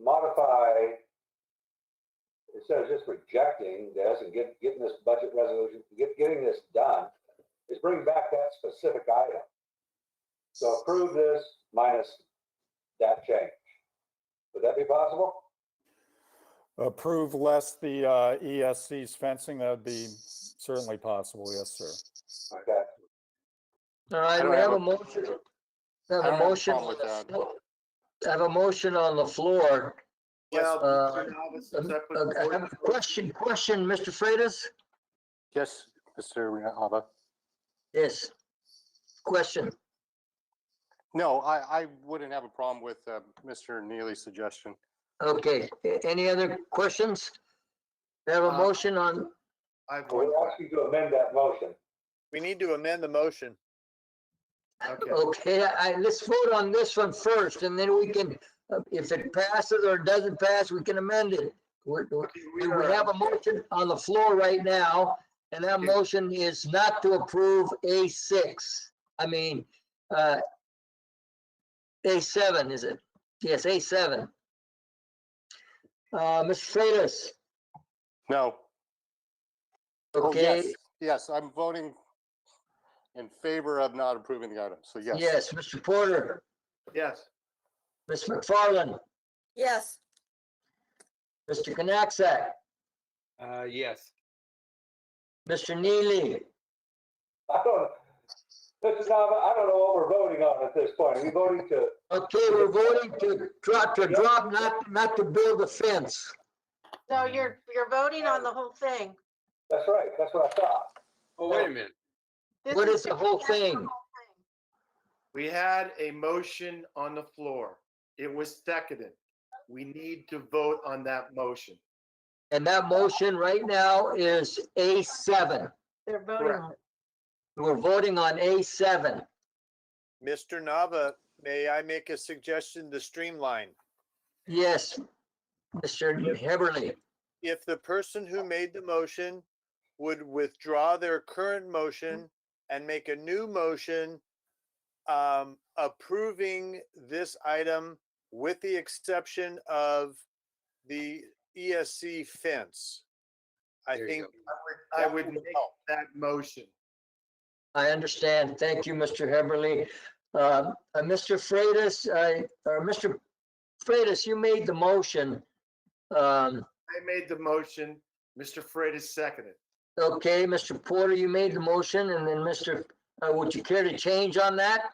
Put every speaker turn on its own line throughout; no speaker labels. modify, instead of just rejecting this and get, getting this budget resolution, get, getting this done, is bring back that specific item. So approve this minus that change. Would that be possible?
Approve less the uh, ESC's fencing, that'd be certainly possible, yes, sir.
Okay,
All
I
right,
don't
we
have
have
a-
a motion. We
I don't
have a
have a
motion.
problem
on
with
the
that.
floor- I have a motion on the floor.
Well,
Uh,
Mr. Alves,
Uh,
since I put
I have a
forward-
Question, question, Mr. Freitas?
Yes, Mr. Alba.
Yes. Question.
No, I, I wouldn't have a problem with uh, Mr. Neely's suggestion.
Okay, A- any other questions? We have a
Uh,
motion on,
I have
I would
one
ask you to amend that motion.
We need to amend the motion. Okay,
okay, I, I- let's vote on this one first and then we can, uh, if it passes or doesn't pass, we can amend it. We, we- we have a motion on the floor right now and that
Okay.
motion is not to approve A six. I mean, uh, A seven, is it? Yes, A seven. Uh, Mr. Freitas,
No. Oh,
okay?
yes, Yes, I'm voting in favor of not approving the item. So yes.
Yes, Mr. Porter,
yes,
Ms. McFarland,
Yes,
Mr. Knacksack,
Uh, yes.
Mr. Neely.
I don't, this is not, I don't know what we're voting on at this point. Are we voting to,
Okay, we're voting to drop, to drop, not, not to build a fence.
so you're, you're voting on the whole thing.
that's right, that's what I thought.
Oh, wait a minute.
This
What is the whole
that's the
thing?
whole thing.
we had a motion on the floor. It was seconded. We need to vote on that motion.
And that motion right now is A seven.
They're voting
Correct.
on it.
We're voting on A seven.
Mr. Nava, may I make a suggestion to streamline?
Yes, Mr. Heberly.
If the person who made the motion would withdraw their
Mm-hmm.
current motion and make a new motion um, approving this item with the exception of the ESC fence. I
There you
think.
go.
I
that
would make
help.
that motion.
I understand. Thank you, Mr. Heberly. Uh, uh, Mr. Freitas, I, or Mr. Freitas, you made the motion. Um,
I made the motion. Mr. Freitas seconded.
Okay, Mr. Porter, you made the motion, and then Mr., uh, would you care to change on that?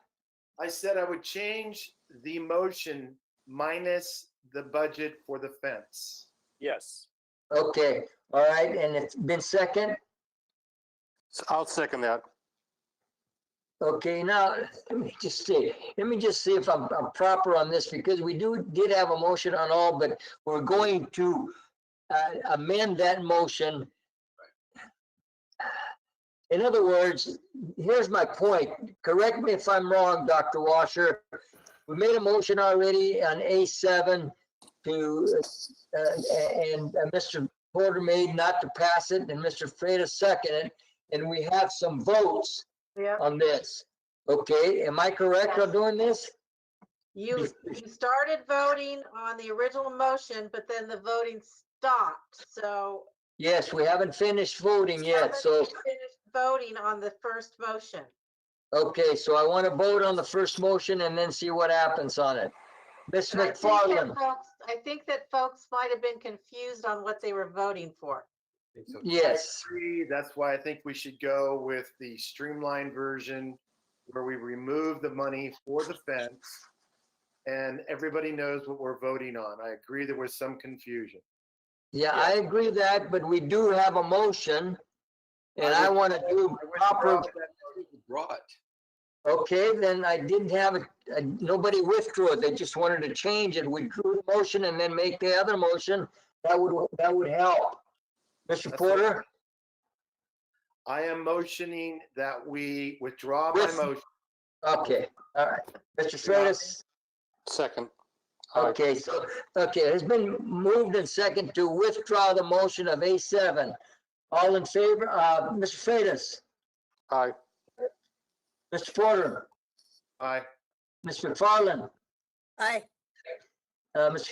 I said I would change the motion minus the budget for the fence.
Yes.
Okay, all right, and it's been second?
So I'll second that.
Okay, now, let me just see, let me just see if I'm, I'm proper on this, because we do, did have a motion on all, but we're going to uh, amend that motion. In other words, here's my point, correct me if I'm wrong, Dr. Washer. We made a motion already on A seven to, uh, a- and uh, Mr. Porter made not to pass it, and Mr. Freitas seconded, it, and we have some votes
Yeah,
on this. Okay, am I correct on doing this?
you, you started voting on the original motion, but then the voting stopped, so.
Yes, we haven't finished voting yet, so,
Somebody finished Voting on the first motion.
okay, so I want to vote on the first motion and then see what happens on it. Ms.
And I think that
McFarland,
folks- I think that folks might have been confused on what they were voting for.
It's okay.
yes,
agree. That's why I think we should go with the streamlined version where we remove the money for the fence and everybody knows what we're voting on. I agree there was some confusion.
yeah, I agree with that, but we do have a motion. And
I
I
would-
want to do
I
proper,
withdraw that-
Brought.
okay, then I didn't have it, uh, nobody withdrew it, they just wanted to change it. We drew the motion and then make the other motion, that would, that would help. Mr.
That's it.
Porter?
I am motioning that we withdraw my
With-
motion.
Okay, all right. Mr. Freitas,
Second. Aye.
okay, so, okay, it's been moved and second to withdraw the motion of A seven. All in favor, uh, Mr. Freitas,
Aye.
Mr. Porter,
Aye.
Ms. McFarland,
Aye.
uh, Mr.